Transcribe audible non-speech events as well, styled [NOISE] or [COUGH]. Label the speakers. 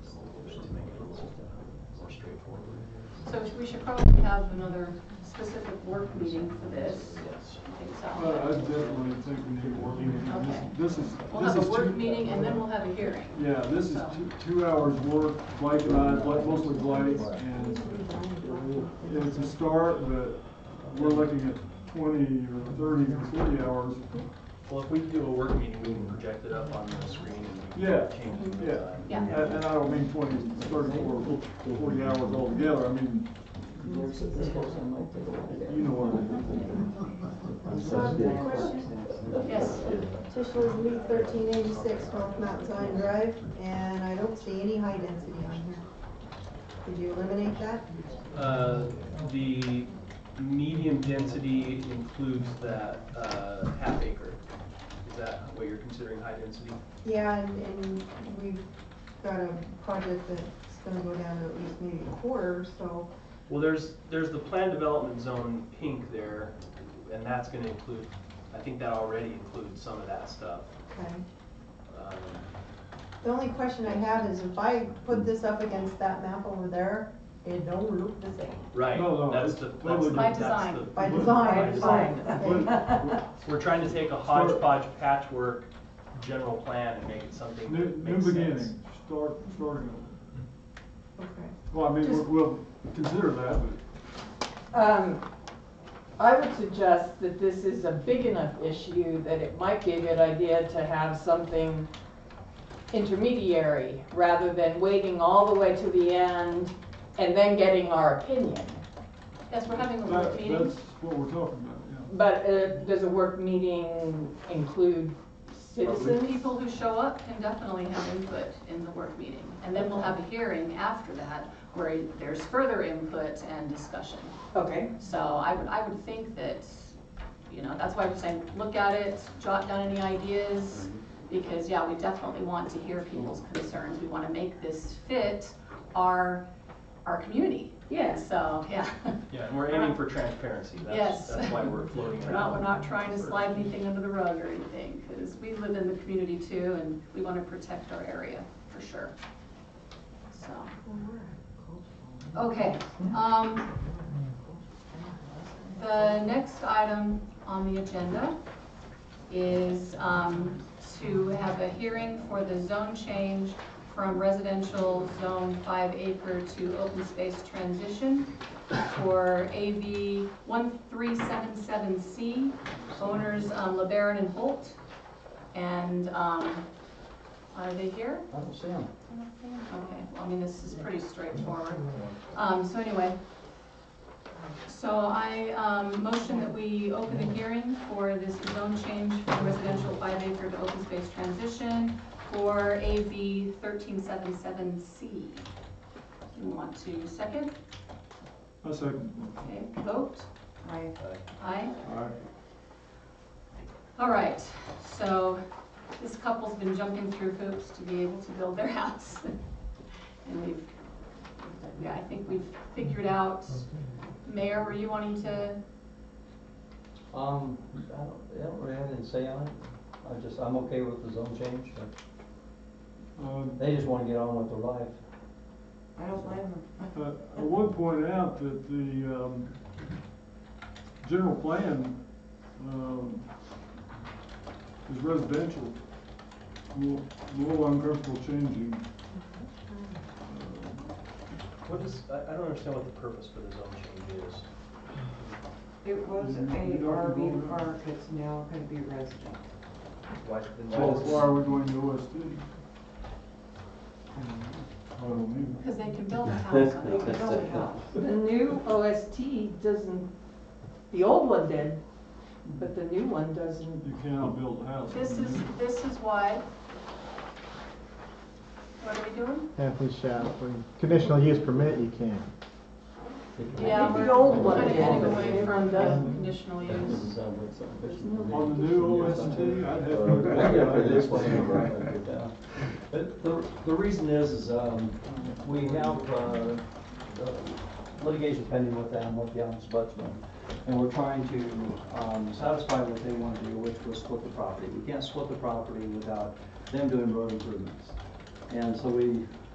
Speaker 1: we should probably have another specific work meeting for this. I think
Speaker 2: Well, Uh, I
Speaker 1: so.
Speaker 2: definitely think we need a work meeting. This this is,
Speaker 1: We'll
Speaker 2: this
Speaker 1: have
Speaker 2: is.
Speaker 1: a work
Speaker 2: two-
Speaker 1: meeting and then we'll have a hearing.
Speaker 2: Yeah, this is two, two hours work, Blake and I, Blake- mostly Blake, and it's a start, but we're looking at twenty or thirty or forty hours.
Speaker 3: Well, if we do a work meeting, we can project it up on the screen and we
Speaker 2: Yeah,
Speaker 3: can change it.
Speaker 2: yeah.
Speaker 1: Yeah.
Speaker 2: And, and I don't mean 20, 30, or 40 hours altogether, I mean, you know what I mean.
Speaker 1: Yes.
Speaker 4: Tish lives in Loop thirteen eighty-six, North Mount Zion Drive, and I don't see any high density on here. Did you eliminate that?
Speaker 3: Uh, the medium density includes that, uh, half acre. Is that what you're considering high density?
Speaker 4: Yeah, and, and we've got a project that's gonna go down to at least maybe a quarter, so,
Speaker 3: Well, there's, there's the planned development zone pink there, and that's gonna include, I think that already includes some of that stuff.
Speaker 4: okay.
Speaker 3: Um,
Speaker 4: The only question I have is if I put this up against that map over there, it don't look the same.
Speaker 3: Right,
Speaker 2: No, no,
Speaker 3: that's
Speaker 2: it's
Speaker 3: the, that's
Speaker 2: totally
Speaker 3: the,
Speaker 1: By
Speaker 3: that's
Speaker 1: design.
Speaker 3: the-
Speaker 4: By design.
Speaker 2: By design.
Speaker 4: Okay.
Speaker 3: We're trying to take a hodgepodge patchwork general plan and make it something
Speaker 2: New,
Speaker 3: that
Speaker 2: new
Speaker 3: makes
Speaker 2: beginning,
Speaker 3: sense.
Speaker 2: start, starting. over.
Speaker 4: Okay.
Speaker 2: Well, I mean, we'll, we'll consider that,
Speaker 5: Um, I would suggest that this is a big enough issue that it might be a good idea to have something intermediary rather than waiting all the way to the end and then getting our opinion.
Speaker 1: Yes, we're having a
Speaker 2: but
Speaker 1: work
Speaker 2: that,
Speaker 1: meeting.
Speaker 2: that's what we're talking about, yeah.
Speaker 5: But uh, does a work meeting include
Speaker 1: The
Speaker 5: citizens?
Speaker 1: people who show up can definitely have input in the work meeting. And then we'll have a hearing after that where there's further input and discussion.
Speaker 5: Okay,
Speaker 1: So I would, I would think that, you know, that's why I'm saying, look at it, jot down any ideas, because, yeah, we definitely want to hear people's concerns, we wanna make this fit our, our community.
Speaker 5: Yeah.
Speaker 1: So, yeah,
Speaker 3: Yeah, and we're aiming for transparency, that's,
Speaker 1: Yes.
Speaker 3: that's why we're
Speaker 1: [LAUGHS]
Speaker 3: floating
Speaker 1: we're
Speaker 3: around.
Speaker 1: not, we're not trying to slide anything under the rug or anything, because we live in the community too, and we wanna protect our area, for sure. So, okay, um, The next item on the agenda is um, to have a hearing for the zone change from residential zone five acre to open space transition for AV 1377C, owners um, LeBaron and Holt. And um, are they here?
Speaker 6: I don't see him.
Speaker 1: Okay, well, I mean, this is pretty straightforward. Um, so anyway, so I, um, motion that we open the hearing for this zone change from residential five acre to open space transition for AB thirteen seven seven C. You want to second,
Speaker 2: I second.
Speaker 1: okay, vote? Aye. Aye?
Speaker 2: All right.
Speaker 1: All right, so this couple's been jumping through hoops to be able to build their [LAUGHS] house. And we've, yeah, I think we've figured out, Mayor, were you wanting to,
Speaker 6: Um, I don't, I don't really have anything to say on it. I just, I'm okay with the zone change, but
Speaker 2: Um,
Speaker 6: they just wanna get on with their life.
Speaker 7: I don't blame them.
Speaker 2: Uh, I would point out that the, um, general plan, um, is residential. I'm A little- a little uncomfortable changing.
Speaker 3: What is, I, I don't understand what the purpose for the zone change is.
Speaker 7: It was a RV park, it's now gonna be resident.
Speaker 3: Why, then
Speaker 2: So
Speaker 3: why does-
Speaker 2: why are we going to OSD? Mm-hmm. I don't know.
Speaker 1: because they can build a house on
Speaker 7: They
Speaker 1: it.
Speaker 7: could build a house.
Speaker 5: the new OST doesn't, the old one did, but the new one doesn't.
Speaker 2: You cannot build a house.
Speaker 1: This is, this is why, what are we doing?
Speaker 8: Anthony Shapley. Conditional use permit, you can.
Speaker 1: Yeah,
Speaker 5: think
Speaker 1: we're
Speaker 5: the old one
Speaker 1: kind of
Speaker 5: did,
Speaker 1: getting
Speaker 5: but
Speaker 1: away
Speaker 5: the new
Speaker 1: from
Speaker 5: one
Speaker 1: the
Speaker 5: doesn't.
Speaker 1: conditional
Speaker 6: This
Speaker 1: use.
Speaker 6: is, uh, what's up? This is-
Speaker 2: On the new OST, I'd have.
Speaker 6: Uh, I get
Speaker 2: [LAUGHS]
Speaker 6: it, this one, I'm right, I'll get that. But the, the reason is, is, um, we have, uh, uh, litigation pending with them, with the ombudsman. And we're trying to, um, satisfy what they want to do, which was split the property. We can't split the property without them doing road improvements. And so we